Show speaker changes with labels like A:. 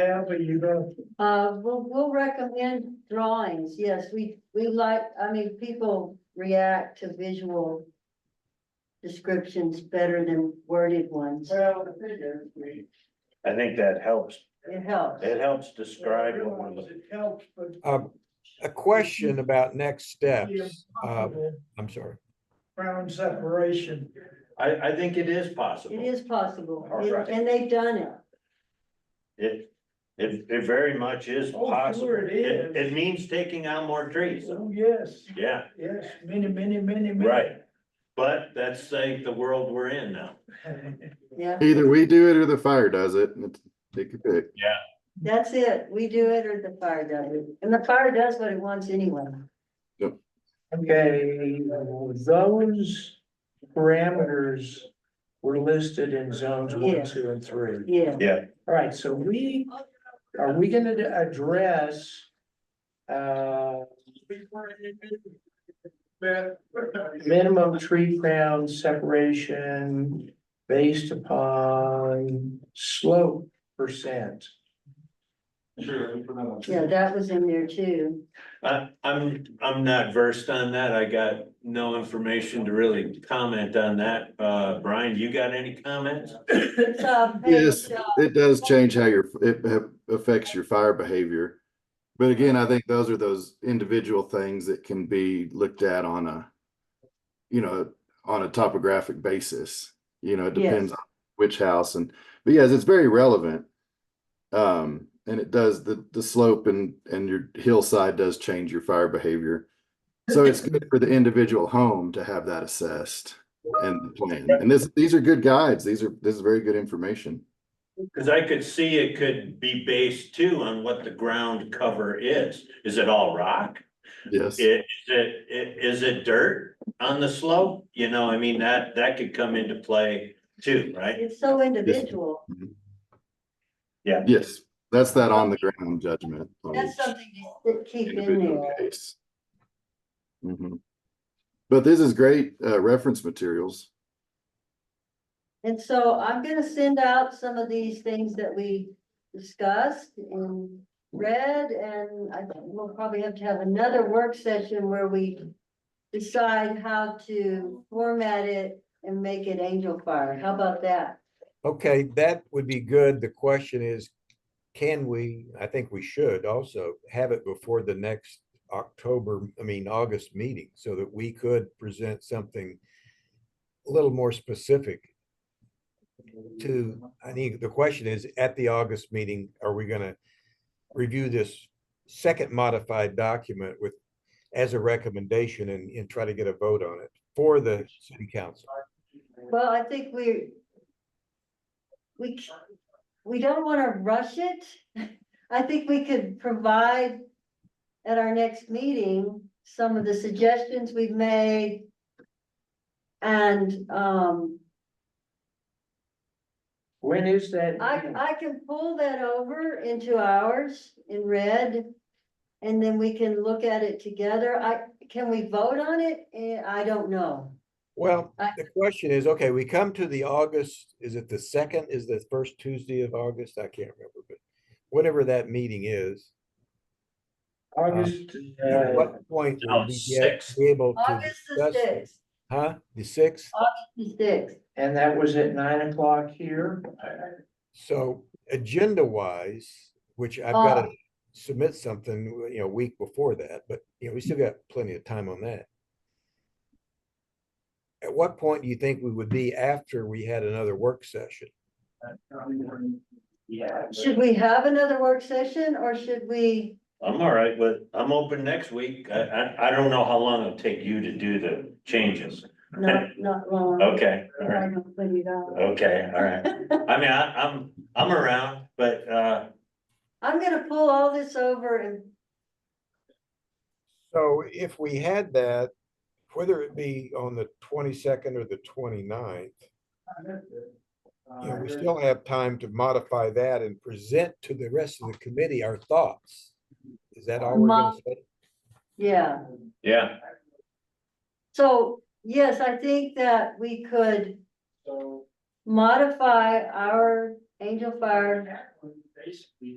A: Yeah, but you don't,
B: Uh, we'll, we'll recommend drawings, yes, we, we like, I mean, people react to visual descriptions better than worded ones,
A: well, the thing is, we.
C: I think that helps.
B: it helps.
C: It helps describe what we're
A: Realize
C: looking.
A: It helps, but.
D: Um, A question about next
A: the
D: steps. Uh,
A: impossible
D: I'm sorry.
A: Ground separation.
C: I, I think it is
B: It
C: possible.
B: is possible,
C: All right.
B: and they've done it.
C: It, it, it very much is
A: Oh, sure
C: possible.
A: it is.
C: It means taking out more trees.
A: Oh, yes,
C: Yeah,
A: yes, many, many, many, many.
C: Right. but that's like the world we're in now.
B: Yeah,
E: Either we do it or the fire does it. It's- Take your pick.
B: that's it. We do it or the fire does it. And the fire does what it wants anyway.
A: Okay, those parameters were listed in zones
B: Yeah.
A: one, two, and three.
B: Yeah.
A: All right, so we, are we gonna address? Uh. Minimum tree crown separation based upon slope percent.
B: Yeah, that was in there too.
C: I, I'm, I'm not versed on that. I got no information to really comment on that. Uh, Brian, you got any comments?
B: It's, uh, page,
E: Yes,
B: uh,
E: it does change how your, it ha- affects your fire behavior. But again, I think those are those individual things that can be looked at on a, you know, on a topographic basis. You know, it
B: Yes.
E: depends on which house and, but yes, it's very relevant. Um, and it does, the, the slope and, and your hillside does change your fire behavior. So it's good for the individual home to have that assessed and the plan. And this, these are good guides. These are, this is very good information.
C: Cause I could see it could be based too on what the ground cover is. Is it all rock?
E: Yes.
C: I- Is it, i- is it dirt on the slope? You know, I mean, that, that could come into play too, right?
B: It's so individual.
E: Yes, that's that on the ground judgment. on
B: That's
E: each
B: something to keep in
E: individual
B: there.
E: case. Mhm. But this is great uh, reference materials.
B: And so I'm gonna send out some of these things that we discussed and read, and I think we'll probably have to have another work session where we decide how to format it and make it Angel Fire. How about that?
D: Okay, that would be good. The question is, can we, I think we should also have it before the next October, I mean, August meeting, so that we could present something a little more specific to, I think the question is, at the August meeting, are we gonna review this second modified document with, as a recommendation and, and try to get a vote on it for the city council?
B: Well, I think we we, c- we don't want to rush it. I think we could provide at our next meeting, some of the suggestions we've made. And, um,
A: When is that?
B: I, I can pull that over into ours in red. And then we can look at it together. I, can we vote on it? Eh, I don't know.
D: Well,
B: I-
D: the question is, okay, we come to the August, is it the second, is the first Tuesday of August? I can't remember, but whatever that meeting is.
A: August,
D: At
A: uh,
D: what point
C: Oh,
D: will we get,
C: sixth.
D: be able to
B: August the
D: discuss? it?
B: sixth,
D: Huh? The sixth?
B: the sixth.
A: and that was at nine o'clock here.
D: So agenda wise, which I've got to
B: Ah.
D: submit something, you know, a week before that, but you know, we still got plenty of time on that. At what point do you think we would be after we had another work session?
A: Yeah.
B: Should we have another work session or should we?
C: I'm all right with, I'm open next week. I, I, I don't know how long it'll take you to do the changes.
B: Not, not long.
C: Okay, all
B: I
C: right,
B: don't put it out.
C: okay, all right. I mean, I, I'm, I'm around, but, uh,
B: I'm gonna pull all this over and,
D: So if we had that, whether it be on the twenty-second or the 29th, you know, we still have time to modify that and present to the rest of the committee our thoughts. Is that all we're gonna say?
B: yeah,
C: yeah,
B: so, yes, I think that we could
A: So.
B: modify our Angel Fire
A: Basically,